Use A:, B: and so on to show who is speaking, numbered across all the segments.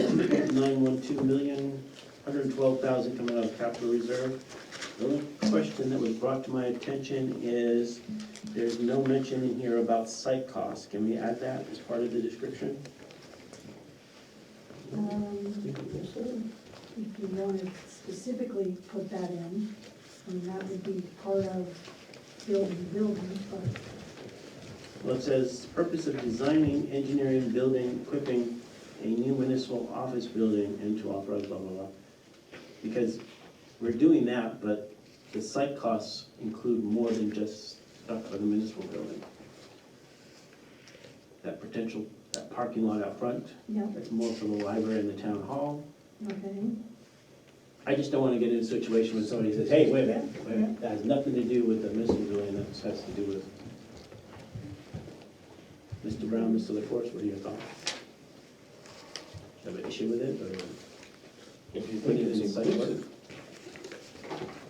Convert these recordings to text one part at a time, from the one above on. A: nine one two million, hundred and twelve thousand coming out of capital reserve. The only question that was brought to my attention is, there's no mention in here about site costs. Can we add that as part of the description?
B: Um, If you want to specifically put that in, I mean, that would be part of building, building, but
A: Well, it says, purpose of designing, engineering, building, equipping a new municipal office building and to authorize blah, blah, blah. Because we're doing that, but the site costs include more than just stuff for the municipal building. That potential, that parking lot out front,
B: yeah,
A: that's more for the library and the town hall.
B: okay.
A: I just don't wanna get in a situation where somebody says, hey, wait a minute, wait a minute, that has nothing to do with the municipal building, that has to do with. Mr. Brown, Mr. LaForest, what are your thoughts? Do you have an issue with it, or
C: If you
A: put
C: think
A: it in
C: it's
A: site work?
C: inclusive,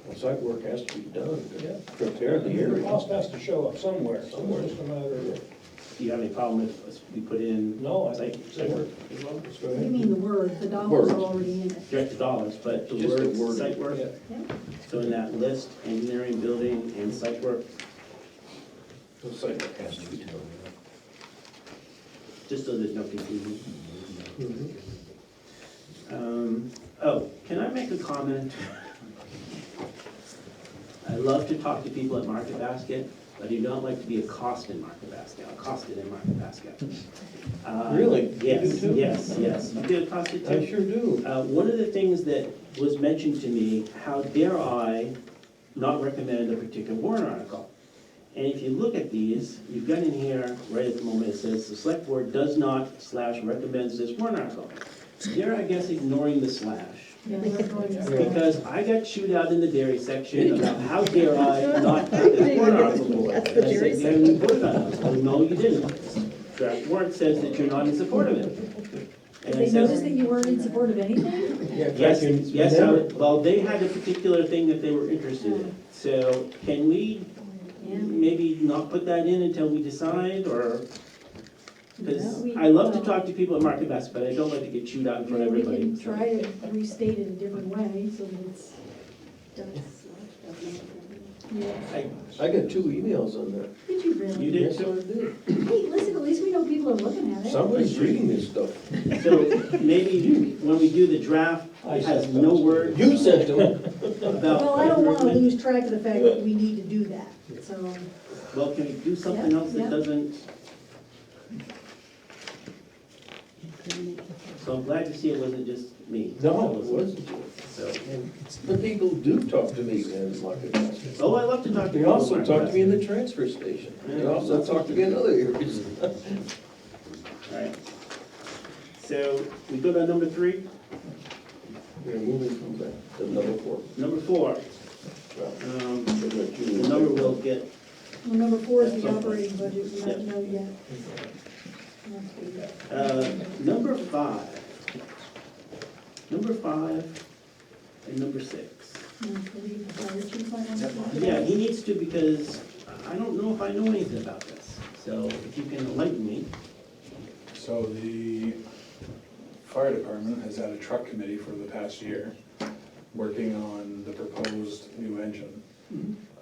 C: well, site work has to be done, to prepare the
D: The
C: area.
D: cost has to show up somewhere, so it's just a matter of,
A: Do you have any problem if us- we put in
D: no, I
A: site,
D: think.
A: site work as well?
D: Let's go
B: You
D: ahead.
B: mean the word, the dollars are
C: Words.
B: already in it.
A: Direct the dollars, but the
C: Just the
A: word
C: wording.
A: site work,
D: Yeah.
A: so in that list, engineering, building, and site work,
C: The site work has to be done.
A: just so there's no confusion.
C: Mm-hmm.
D: Mhm.
A: Um, oh, can I make a comment? I love to talk to people at Market Basket, but I do not like to be accosted in Market Basket, accosted in Market Basket. Uh,
C: Really? You do
A: Yes,
C: too?
A: yes, yes. You get accosted
C: I
A: too?
C: sure do.
A: Uh, one of the things that was mentioned to me, how dare I not recommend a particular warrant article? And if you look at these, you've got in here, right at the moment, it says, the select board does not slash recommends this warrant article. They're, I guess, ignoring the slash.
B: Yeah, we're going to say-
A: Because I got chewed out in the dairy section about how dare I not put this warrant article forward.
E: That's the dairy
A: I said, "Yeah, you voted on it." Well, no, you didn't. Draft warrant says that you're not in support of it. And
B: Did they
A: it
B: notice
A: says,
B: that you weren't in support of anything?
C: Yeah, if I
A: yes,
C: can
A: yes, I
C: remember.
A: would- well, they had a particular thing that they were interested in. So can we maybe not put that in until we decide or? Because
B: No, we-
A: I love to talk to people at Market Basket, but I don't like to get chewed out in front of
B: We
A: everybody.
B: can try to restate it a different way, so that it's, yeah.
A: I-
C: I got two emails on that.
B: Did you really?
A: You did?
C: Yes, I did.
B: Hey, listen, at least we know people are looking at it.
C: Somebody's reading this stuff.
A: So maybe when we do the draft,
D: I
A: it has
D: said
A: no
D: those.
A: word
C: You sent them.
A: about.
B: Well, I don't wanna lose track of the fact that we need to do that, so,
A: Well, can we do something
B: Yeah,
A: else
B: yeah.
A: that doesn't? So I'm glad to see it wasn't just me.
C: No, it wasn't.
A: So,
C: The people do talk to me in Market Basket.
A: oh, I love to talk to.
C: They
A: people
C: also
A: about
C: talk to me
A: that.
C: in the transfer station. They also talk to me in other areas.
A: All right. So we go to number three,
C: We're moving from that to number four.
A: number four,
C: Well,
A: um,
C: we're gonna choose-
A: the number will get
B: well, number four is the operating budget, we don't know yet.
A: Uh, Number five. Number five and number six. Yeah, he needs to because I don't know if I know anything about this. So if you can enlighten me,
F: So the fire department has had a truck committee for the past year, working on the proposed new engine.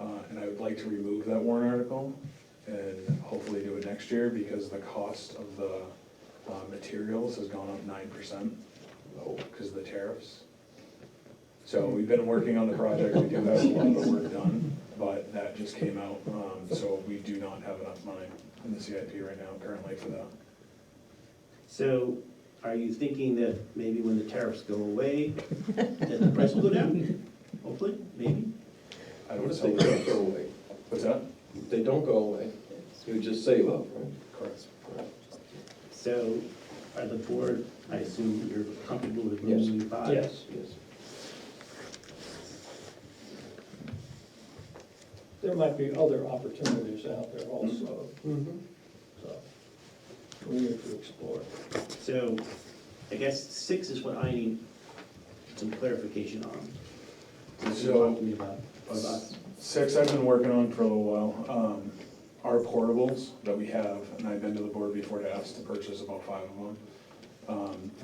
F: Uh, And I would like to remove that warrant article and hopefully do it next year because the cost of the uh, materials has gone up nine percent because of the tariffs. So we've been working on the project, we do have a lot of work done, but that just came out. um, So we do not have enough money in the CIP right now currently for that.
A: so are you thinking that maybe when the tariffs go away, that the price will go down? Hopefully, maybe.
F: I would
C: They
F: say,
C: don't go away.
F: what's that?
C: They don't go away. You just save up, right?
F: Correct.
A: So are the board, I assume you're comfortable with
C: Yes.
A: removing five?
D: Yes.
C: Yes.
D: There might be other opportunities out there also,
C: Mm-hmm.
D: so we need to explore.
A: So, I guess six is what I need some clarification on. Since you
F: So-
A: talked to me about, about
F: Six I've been working on for a little while, um, are portables that we have, and I've been to the board before to ask to purchase about five of them. Um,